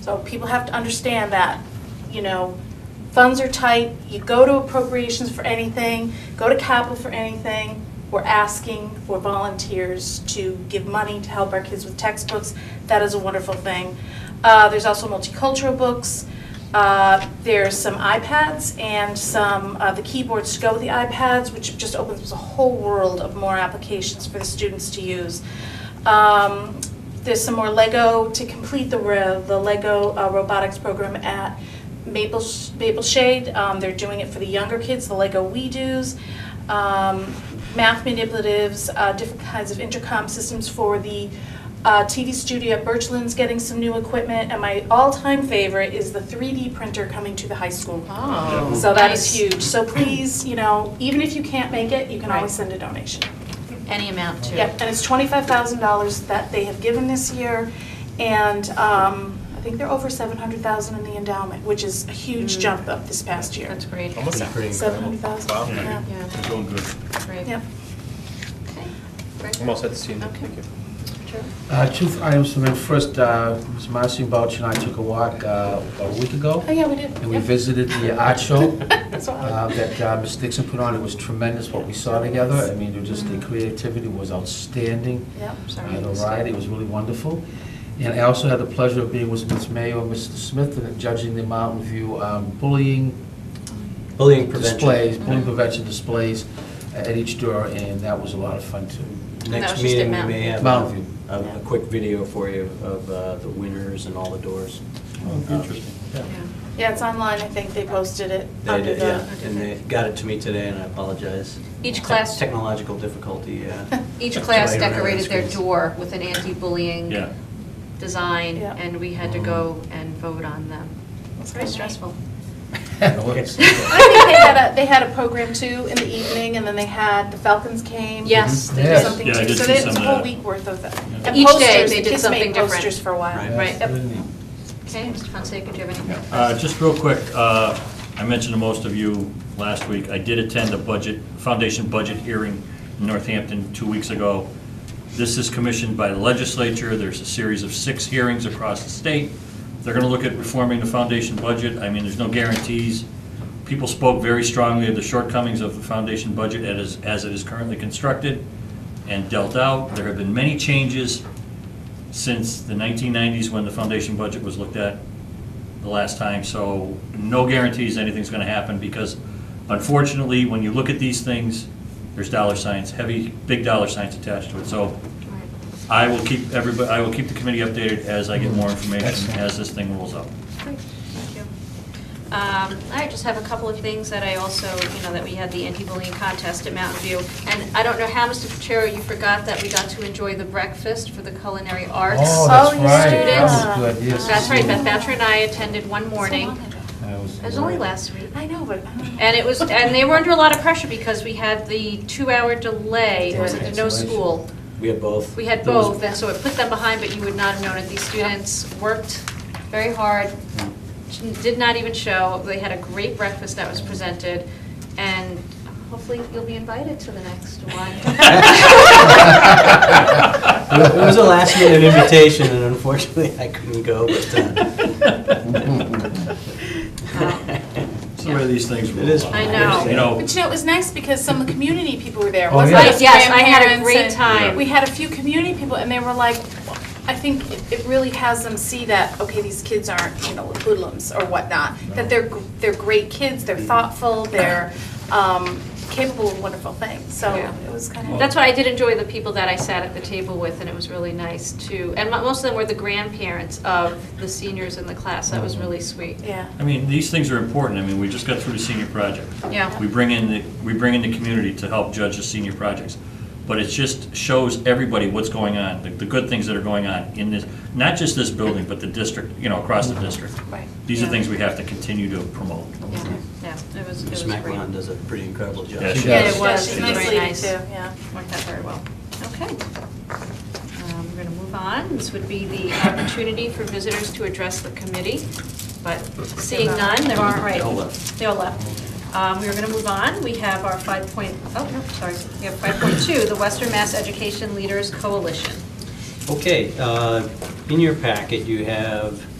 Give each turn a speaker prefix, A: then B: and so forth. A: So people have to understand that, you know, funds are tight, you go to appropriations for anything, go to capital for anything. We're asking for volunteers to give money to help our kids with textbooks. That is a wonderful thing. Uh, there's also multicultural books. Uh, There's some iPads and some, uh, the keyboards to go with the iPads, which just opens a whole world of more applications for the students to use. Um, There's some more Lego to complete the ro- the Lego uh, robotics program at Maple Sh- Maple Shade. Um, They're doing it for the younger kids, the Lego We Do's, um, math manipulatives, uh, different kinds of intercom systems for the uh, TV studio at Birchland's getting some new equipment, and my all-time favorite is the 3D printer coming to the high school.
B: Oh.
A: So that is
B: Nice.
A: huge. So please, you know, even if you can't make it, you can
B: Right.
A: always send a donation.
B: Any amount too.
A: Yep, and it's twenty-five thousand dollars that they have given this year, and um, I think they're over seven hundred thousand in the endowment, which is a huge jump up this past year.
B: That's great.
C: Almost
D: Pretty- pretty
A: Seven
D: incredible.
A: hundred thousand,
C: Wow.
A: yeah.
B: Yeah,
D: It's going good.
B: great.
A: Yep.
B: Okay.
C: I'm all set to see you.
B: Okay.
C: Thank you.
B: Sure.
E: Uh, Two items for me. First, uh, Ms. Marcy Bouch and I took a walk uh, a week ago,
A: Oh, yeah, we did.
E: and we
A: Yep.
E: visited the art show
A: That's all.
E: uh, that uh, Ms. Dixon put on. It was tremendous what we saw together. I mean, it was just the creativity was outstanding.
A: Yep.
B: Sorry.
E: Uh, The ride, it was really wonderful. And I also had the pleasure of being with Ms. Mayo and Mr. Smith and judging the Mountain View um, bullying
D: Bullying
E: displays,
D: prevention.
E: bullying prevention displays at each door, and that was a lot of fun, too.
B: And that was
D: Next
B: just
D: meeting, we
B: at
D: may have
E: Mountain View.
D: a, a quick video for you of uh, the winners and all the doors.
F: Oh,
D: Um, Oh,
B: Yeah.
A: Yeah, it's online, I think they posted it
D: They
A: under
D: did, yeah,
A: the,
D: and they got it to me today, and I apologize.
B: Each
D: Te-
B: class-
D: Technological difficulty, uh, yeah.
B: Each
D: That's
B: class
D: why I don't have
B: decorated their
D: screens.
B: door with an anti-bullying design,
A: Yeah.
B: and we had to go and vote on them. It's very stressful.
A: I think they had a, they had a program too in the evening, and then they had, the Falcons came.
B: Yes,
A: They
E: Yes.
A: did something
F: Yeah, I
A: too,
F: did
A: so
F: see
A: they- it's
F: some
A: a
F: of
A: whole
F: that.
A: week worth of that. And
B: Each day
A: posters,
B: they
A: the
B: did
A: kids
B: something
A: made
B: different.
A: posters for a while.
D: Right.
B: Right. Yep.
E: Really neat.
B: Okay, Mr. Fonseca, do you have any?
F: Uh, Just real quick, uh, I mentioned to most of you last week, I did attend a budget, foundation budget hearing in Northampton two weeks ago. This is commissioned by the legislature, there's a series of six hearings across the state. They're going to look at reforming the foundation budget, I mean, there's no guarantees. People spoke very strongly of the shortcomings of the foundation budget as as it is currently constructed and dealt out. There have been many changes since the 1990s when the foundation budget was looked at the last time, so no guarantees anything's going to happen because unfortunately, when you look at these things, there's dollar signs, heavy, big dollar signs attached to it. So I will keep everybody, I will keep the committee updated as I get more information
E: Excellent.
F: as this thing rolls out.
B: Great, thank you. Um, I just have a couple of things that I also, you know, that we had the anti-bullying contest at Mountain View. And I don't know how, Mr. Pacheco, you forgot that we got to enjoy the breakfast for the culinary arts.
A: Oh,
E: Oh, that's
A: you
E: right.
A: students.
E: That was good, yes.
B: That's right, Beth Thatcher and I attended one morning.
A: So long ago.
E: That was
B: It was only
E: good.
B: last week.
A: I know, but. um, I don't know.
B: And it was, and they were under a lot of pressure because we had the two-hour delay, it was
E: Yeah.
B: no school.
D: We had both.
B: We had
D: There was-
B: both, and so it put them behind, but you would not have known it. These students worked very hard, did not even show. They had a great breakfast that was presented, and hopefully you'll be invited to the next one.
D: It was a last minute invitation, and unfortunately, I couldn't go, but. uh,
F: It's the way these things roll
D: It is.
F: out.
B: I know.
F: You know,
A: But you know, it was nice because some of the community people were there.
E: Oh,
A: wasn't
E: yeah.
A: it?
B: Yes, I had a
A: Grandparents
B: great
A: and
B: time.
A: We had a few community people and they were like, I think it- it really has them see that, okay, these kids aren't, you know, hoodlums or whatnot. That they're, gr- they're great kids, they're thoughtful, they're um, capable of wonderful things. So
B: Yeah.
A: it was kind of.
B: That's what I did enjoy the people that I sat at the table with, and it was really nice too. And mo- most of them were the grandparents of the seniors in the class. That
D: Mm-hmm.
B: was really sweet.
A: Yeah.
F: I mean, these things are important. I mean, we just got through the senior project.
B: Yeah.
F: We bring in, the we bring in the community to help judge the senior projects. But it just shows everybody what's going on, the, the good things that are going on in this, not just this building, but the district, you know, across the district.
A: Right.
F: These are
B: Yeah.
F: things we have to continue to promote.
B: Yeah, yeah, it was, it was
D: Smack
B: great.
D: Ron does a pretty incredible job.
F: Yeah, she
B: Yeah,
E: does.
B: it was,
A: She's
B: it
A: a
B: was
A: nice
B: very
A: lady,
B: nice.
A: too, yeah.
B: Worked out very well. Okay. Um, We're going to move on. This would be the opportunity for visitors to address the committee, but seeing none, there aren't, right?
D: They all left.
B: They all left. Um, We're going to move on. We have our five point, oh, no, sorry. We have 5.2, the Western Mass Education Leaders Coalition.
D: Okay, uh, in your packet, you have